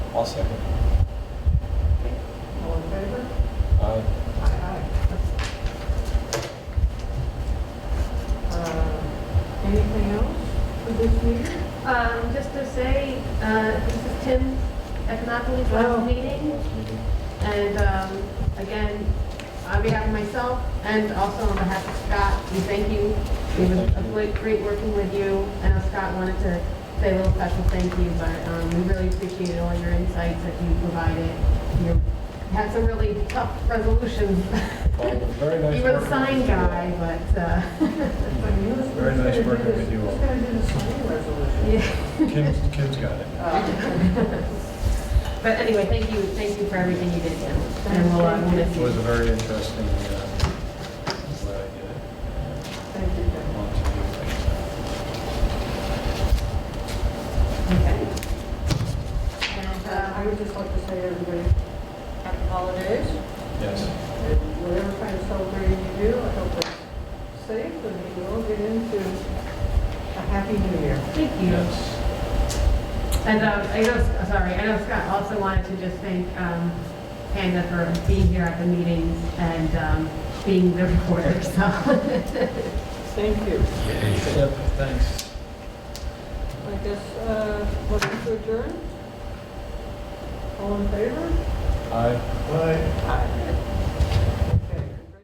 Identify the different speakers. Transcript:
Speaker 1: I'll second.
Speaker 2: Okay. All in favor?
Speaker 1: Aye.
Speaker 2: Aye, aye. Uh, Anything else for this meeting?
Speaker 3: Um, just to say, uh, this is Tim Econopoulos
Speaker 2: Oh.
Speaker 3: last meeting, and, um, again, on behalf of myself and also on behalf of Scott, we thank you. It was a great, great working with you. I know Scott wanted to say a little special thank you, but, um, we really appreciated all your insights that you provided. You had some really tough resolutions.
Speaker 1: Well, Very nice.
Speaker 3: You were the
Speaker 1: working with
Speaker 3: sign
Speaker 1: you.
Speaker 3: guy, but, uh,
Speaker 2: Very
Speaker 1: Very nice working with you all.
Speaker 2: Who's going to do the signing resolution?
Speaker 3: yeah.
Speaker 1: Kim's, Kim's got it.
Speaker 2: Uh,
Speaker 3: But anyway, thank you, thank you for everything you did, Tim. And we'll, uh, miss
Speaker 1: It was a
Speaker 3: you.
Speaker 1: very interesting, uh, glad I did it.
Speaker 2: Thank you, Jeff.
Speaker 1: Lots of new things.
Speaker 3: Okay.
Speaker 4: And
Speaker 2: Uh, I
Speaker 4: uh,
Speaker 2: would just like to say, everybody,
Speaker 4: happy holidays.
Speaker 1: Yes.
Speaker 2: and whatever kind of celebrating you do, I hope it's safe and that you all get into a happy new year.
Speaker 3: Thank you.
Speaker 1: Yes.
Speaker 3: And um, I know, uh, sorry, I know Scott also wanted to just thank um, Panda for being here at the meetings and um, being the reporter, so.
Speaker 2: Thank you.
Speaker 1: Yep, thanks.
Speaker 2: I guess, uh, motion to adjourn? All in favor?
Speaker 1: Aye. Aye.
Speaker 2: Aye.